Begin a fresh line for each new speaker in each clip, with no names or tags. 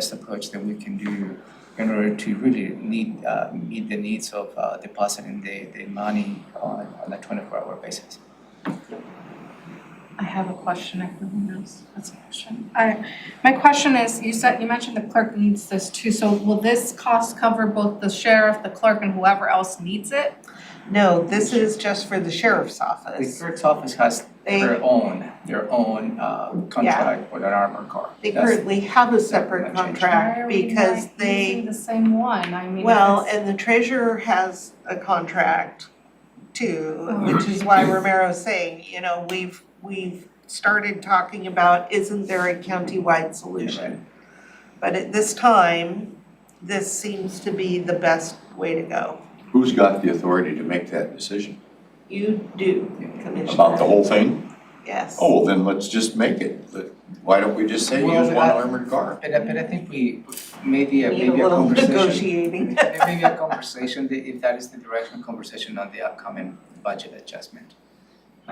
best approach that we can do in order to really need, uh, meet the needs of, uh, depositing the, the money on, on a twenty-four hour basis.
I have a question if no one else has a question. I, my question is, you said, you mentioned the clerk needs this too, so will this cost cover both the sheriff, the clerk, and whoever else needs it?
No, this is just for the sheriff's
The
office.
clerk's office has
They-
their own, their own, uh, contract with an armored car.
They
That's-
currently have a
that
separate
might change.
Why are
contract
we
because
not using
they,
the same one? I mean,
well,
it's-
and the treasurer has a contract too, which is why
Mm-hmm.
Romero's saying, you know, we've, we've started talking about, isn't there a countywide
Yeah,
solution? But at this time, this seems to be the best way to go.
Who's got the authority to make that decision?
You do, Commissioner.
About the whole thing?
Yes.
Oh, well, then let's just make it. Let- Why don't we just say
Well,
use one
that-
armored car?
But I, but I think we, maybe, a-
Need a
maybe a
little
conversation,
negotiating.
maybe a conversation, that if that is the direction, conversation on the upcoming budget adjustment.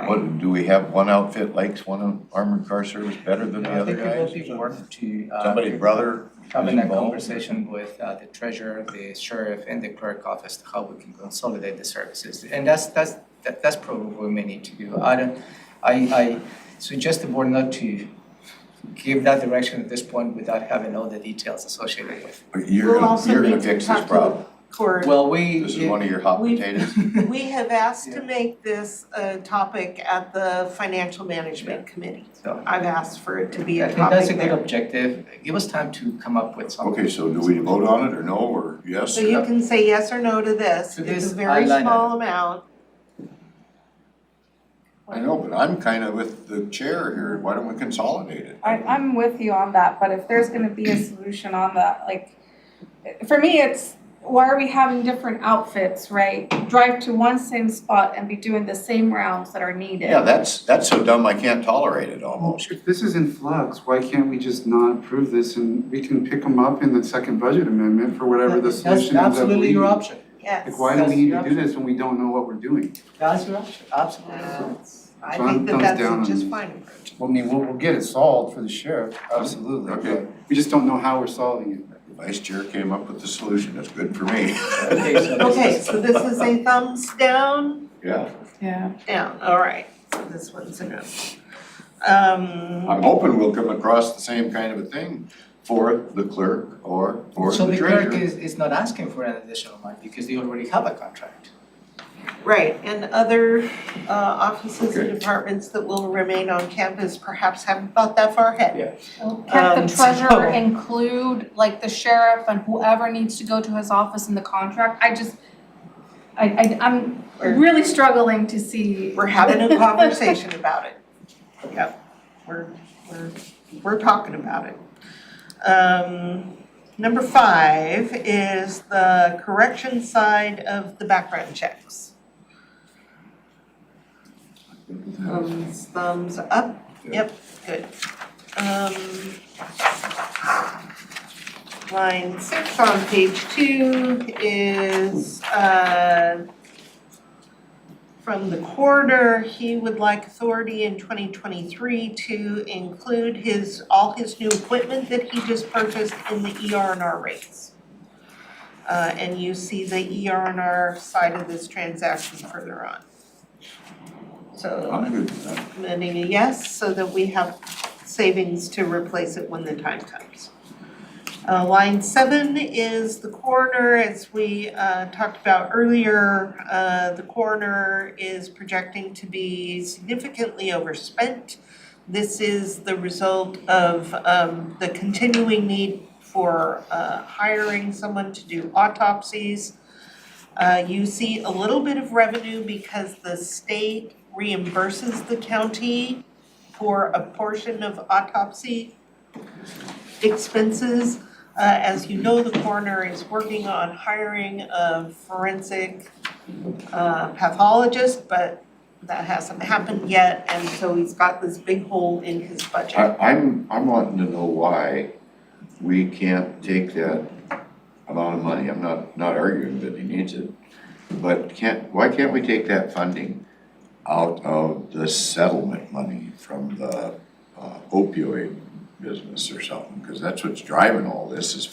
What, do we have one outfit likes one armored car service better than the
No, I
other
think it
guys?
will be worth to, uh.
Somebody's brother?
having a
involved?
conversation with uh the treasurer, the sheriff and the clerk office to how we can consolidate the services. And that's that's that that's probably what we need to do. I don't, I I suggest the board not to give that direction at this point without having all the details associated with.
You're
We'll
gonna,
also
you're
need
gonna
to
fix
talk
this
to the
problem.
court.
Well, we.
This is one of your hot
We-
potatoes.
We have asked to
Yeah.
make this a topic at the Financial Management Committee.
So
I've asked for it to be
I
a
think that's a
topic
good
there.
objective. Give us time to come up with something.
Okay, so do we vote on it or no, or yes?
So you can say yes or no to this.
To
It's
this,
a very
I like
small amount.
I know, but I'm kinda with the chair here. Why don't we consolidate it?
I, I'm with you on that, but if there's gonna be a solution on that, like, for me, it's, why are we having different outfits, right? Drive to one same spot and be doing the same rounds that are needed.
Yeah, that's, that's so dumb I can't tolerate it
Well,
almost.
Oh, if this is in flux, why can't we just not approve this and we can pick them up in the second budget amendment for whatever the
That's
solution is that
absolutely
we
your
need?
option.
Yes.
Like, why do
That's
we need
your
to do this when we don't know what we're doing?
That's your option, absolutely.
Uh,
Yes. I think
John
that
thumbs
that's
down
a just
on-
fine approach.
Well, I mean, we'll, we'll get it solved for the sheriff, absolutely,
Okay.
but we just don't know how we're solving it.
Vice chair came up with the solution. That's good for me.
Okay, so this
Okay,
is-
so this is a thumbs down,
Yeah.
Yeah.
down, all right, so this one's a no. Um,
I'm hoping we'll come across the same kind of a thing for the clerk or for
So
the
the clerk
treasurer.
is, is not asking for an additional money because they already have a contract.
right, and other uh offices and
Okay.
departments that will remain on campus perhaps haven't thought that far ahead.
Well, Can't
Um,
the treasurer
so-
include, like, the sheriff and whoever needs to go to his office in the contract? I just, I, I, I'm really struggling to see.
We're having a conversation about it. Yep, we're, we're, we're talking about it. Um, number five is the correction side of the background checks. Thumbs, Um, thumbs up, yep, good. Um, line six on page two is, uh, from the coroner, he would like authority in twenty twenty-three to include his, all his new equipment that he just purchased in the ER and R rates. Uh, and you see the ER and R side of this transaction further on. So
I'm good with that.
amending a yes, so that we have savings to replace it when the time comes. Uh, line seven is the coroner, as we, uh, talked about earlier, uh, the coroner is projecting to be significantly overspent. This is the result of, um, the continuing need for, uh, hiring someone to do autopsies. Uh, you see a little bit of revenue because the state reimburses the county for a portion of autopsy expenses. Uh, as you know, the coroner is working on hiring a forensic uh, pathologist, but that hasn't happened yet, and so he's got this big hole in his budget.
I, I'm, I'm wanting to know why we can't take that amount of money. I'm not, not arguing that he needs it. But can't, why can't we take that funding out of the settlement money from the uh, opioid business or something, because that's what's driving all this is